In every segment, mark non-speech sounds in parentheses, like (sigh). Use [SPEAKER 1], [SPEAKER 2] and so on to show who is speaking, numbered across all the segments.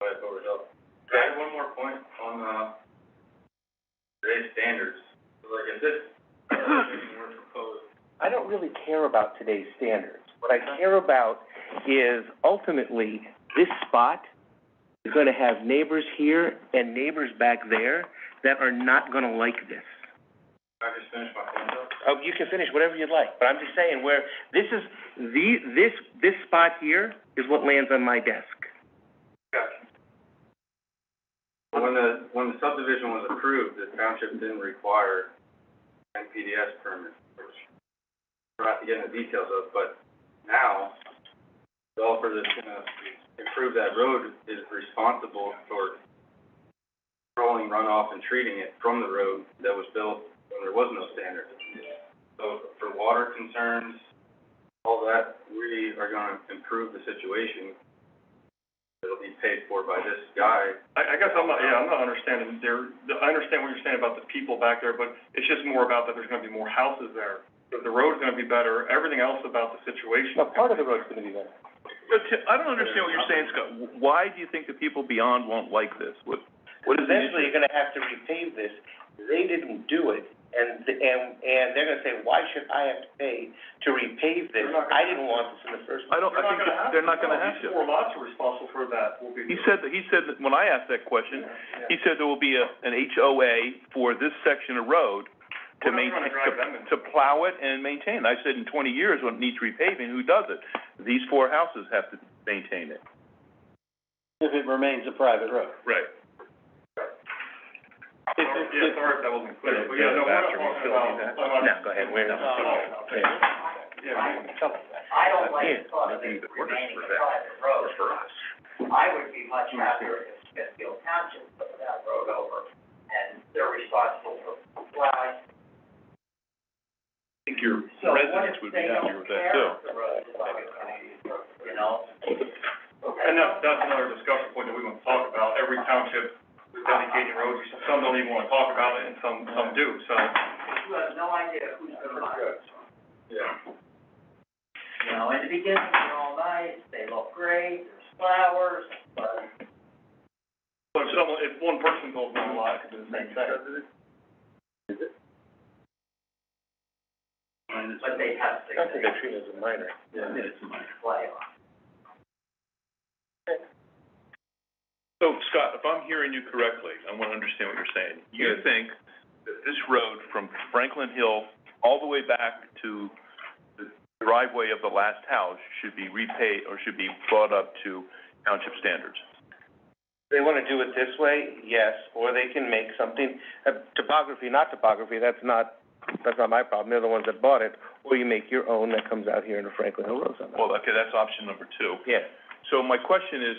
[SPEAKER 1] that goes up. I have one more point on, uh, today's standards, like, if this, (coughs)
[SPEAKER 2] (coughs)
[SPEAKER 1] if were proposed,
[SPEAKER 2] I don't really care about today's standards. What I care about is ultimately, this spot is gonna have neighbors here and neighbors back there that are not gonna like this.
[SPEAKER 1] I just finished my point up.
[SPEAKER 2] Oh, you can finish whatever you'd like, but I'm just saying where, this is, the, this, this spot here is what lands on my desk.
[SPEAKER 1] Gotcha. When the, when the subdivision was approved, the township didn't require NPDS permit, which we're not getting the details of, but now, the developer that's gonna improve that road is responsible for controlling runoff and treating it from the road that was built when there was no standard. So for water concerns, all that, we are gonna improve the situation it'll be paid for by this guy.
[SPEAKER 3] I, I guess I'm not, yeah, I'm not understanding there, the- I understand what you're saying about the people back there, but it's just more about that there's gonna be more houses there. The the road's gonna be better, everything else about the situation.
[SPEAKER 2] the road's gonna be better.
[SPEAKER 4] But Ti- I don't understand what you're saying, Scott. W- Why do you think the people beyond won't like this? What, what is the
[SPEAKER 2] Eventually,
[SPEAKER 4] issue?
[SPEAKER 2] you're gonna have to repave this. They didn't do it, and, and, and they're gonna say, why should I have to pay to repave this?
[SPEAKER 3] They're not gonna-
[SPEAKER 2] I didn't want this in the first place.
[SPEAKER 4] I don't, I think that they're not gonna have
[SPEAKER 3] Four
[SPEAKER 4] to.
[SPEAKER 3] lots are responsible for that, will be.
[SPEAKER 4] He said, that- he said, that when I asked that question, he said there will be a, an HOA for this section of road to
[SPEAKER 3] We're
[SPEAKER 4] maintain,
[SPEAKER 3] not gonna drive them in.
[SPEAKER 4] to, to plow it and maintain. I said in twenty years, when it needs repaving, who does it? These four houses have to maintain it.
[SPEAKER 2] If it remains a private road.
[SPEAKER 4] Right.
[SPEAKER 3] Yeah, sorry if that wasn't clear, but yeah, no, we're not
[SPEAKER 4] Bathroom
[SPEAKER 3] talking
[SPEAKER 4] facility,
[SPEAKER 3] about.
[SPEAKER 4] that-
[SPEAKER 3] I'm
[SPEAKER 2] No,
[SPEAKER 3] not-
[SPEAKER 2] go ahead, we're,
[SPEAKER 3] No, no, no.
[SPEAKER 2] yeah.
[SPEAKER 3] Yeah,
[SPEAKER 5] I don't like
[SPEAKER 4] Yeah,
[SPEAKER 5] the thought of
[SPEAKER 4] nothing
[SPEAKER 5] it
[SPEAKER 4] but works
[SPEAKER 5] remaining
[SPEAKER 4] for
[SPEAKER 5] a
[SPEAKER 4] that,
[SPEAKER 5] private road.
[SPEAKER 4] for us.
[SPEAKER 5] I would be much happier if Smithfield Township put that road over, and they're responsible for plowing.
[SPEAKER 4] I think your
[SPEAKER 5] So what
[SPEAKER 4] residents
[SPEAKER 5] if
[SPEAKER 4] would be
[SPEAKER 5] they
[SPEAKER 4] happier
[SPEAKER 5] don't
[SPEAKER 4] with that
[SPEAKER 5] care
[SPEAKER 4] too.
[SPEAKER 5] if the road is on the county, you know?
[SPEAKER 3] And that, that's another discussion point that we want to talk about, every township is dedicating roads, some don't even wanna talk about it, and some, some do, so.
[SPEAKER 5] You have no idea who's gonna buy it.
[SPEAKER 1] Yeah.
[SPEAKER 5] You know, in the beginning, they're all nice, they look great, there's flowers, but
[SPEAKER 3] But if someone, if one person goes down a lot, it could be the same thing.
[SPEAKER 5] But they have significant
[SPEAKER 2] treat it as a minor.
[SPEAKER 1] Yeah.
[SPEAKER 5] play on.
[SPEAKER 4] So Scott, if I'm hearing you correctly, I want to understand what you're saying. You think that this road from Franklin Hill all the way back to the driveway of the last house should be repaid or should be brought up to township standards?
[SPEAKER 2] They wanna do it this way, yes, or they can make something, uh, topography, not topography, that's not, that's not my problem, they're the ones that bought it. Or you make your own that comes out here in the Franklin Hill Road somehow.
[SPEAKER 4] Well, okay, that's option number two.
[SPEAKER 2] Yeah.
[SPEAKER 4] So my question is,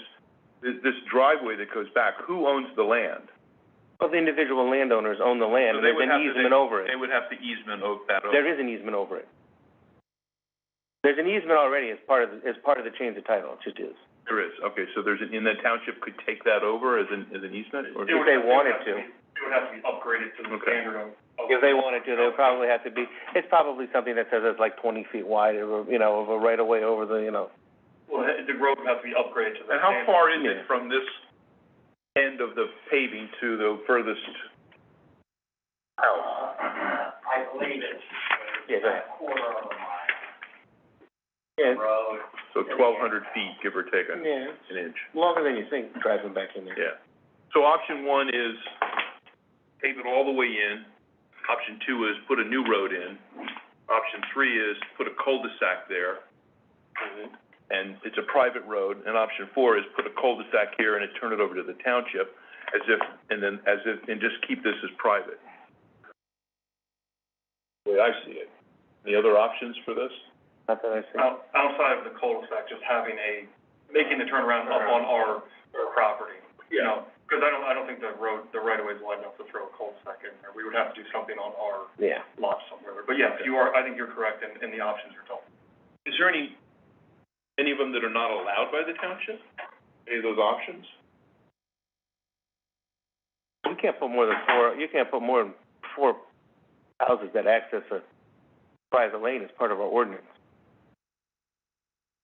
[SPEAKER 4] th- this driveway that goes back, who owns the land?
[SPEAKER 2] Well, the individual landowners own the land,
[SPEAKER 4] So
[SPEAKER 2] and
[SPEAKER 4] they
[SPEAKER 2] there's
[SPEAKER 4] would
[SPEAKER 2] an
[SPEAKER 4] have to-
[SPEAKER 2] easement over
[SPEAKER 4] They
[SPEAKER 2] it.
[SPEAKER 4] would have to easement of that over.
[SPEAKER 2] There is an easement over it. There's an easement already as part of, the- as part of the change of title, it just is.
[SPEAKER 4] There is, okay, so there's, an- and the township could take that over as an, as an easement or?
[SPEAKER 3] It would-
[SPEAKER 2] they
[SPEAKER 3] it would
[SPEAKER 2] wanted
[SPEAKER 3] have
[SPEAKER 2] to.
[SPEAKER 3] be- It would have to be upgraded to the
[SPEAKER 4] Okay.
[SPEAKER 3] standard of. of-
[SPEAKER 2] If they wanted to, they would probably have to be, it's probably something that says it's like twenty feet wide, or, you know, of a right of way over the, you know.
[SPEAKER 3] Well, the the road would have to be upgraded to the
[SPEAKER 4] And how
[SPEAKER 3] standard.
[SPEAKER 4] far is
[SPEAKER 2] Yeah.
[SPEAKER 4] it from this end of the paving to the furthest?
[SPEAKER 5] Uh, I believe it's
[SPEAKER 2] Oh. Yeah, go ahead.
[SPEAKER 5] a quarter of a mile
[SPEAKER 2] Yeah,
[SPEAKER 5] road.
[SPEAKER 4] So twelve hundred feet, give or take a,
[SPEAKER 2] yeah,
[SPEAKER 4] an inch,
[SPEAKER 2] longer than you think, driving back in there.
[SPEAKER 4] yeah. So option one is pave it all the way in. Option two is put a new road in. Option three is put a cul-de-sac there. And it's a private road. And option four is put a cul-de-sac here and it turn it over to the township as if, and then, as if, and just keep this as private. The way I see it. Any other options for this?
[SPEAKER 2] Not that I see.
[SPEAKER 3] Out- Outside of the cul-de-sac, just having a, making the turnaround up on our, our property, you know? Because I don't, I don't think the road, the right of way is wide enough to throw a cul-de-sac in there. We would have to do something on our
[SPEAKER 2] Yeah.
[SPEAKER 3] lot somewhere. But yes, you are, I think you're correct in, in the options you're talking.
[SPEAKER 4] Is there any, any of them that are not allowed by the township? Any of those options?
[SPEAKER 2] You can't put more than four, you can't put more than four houses that access a private lane as part of our ordinance.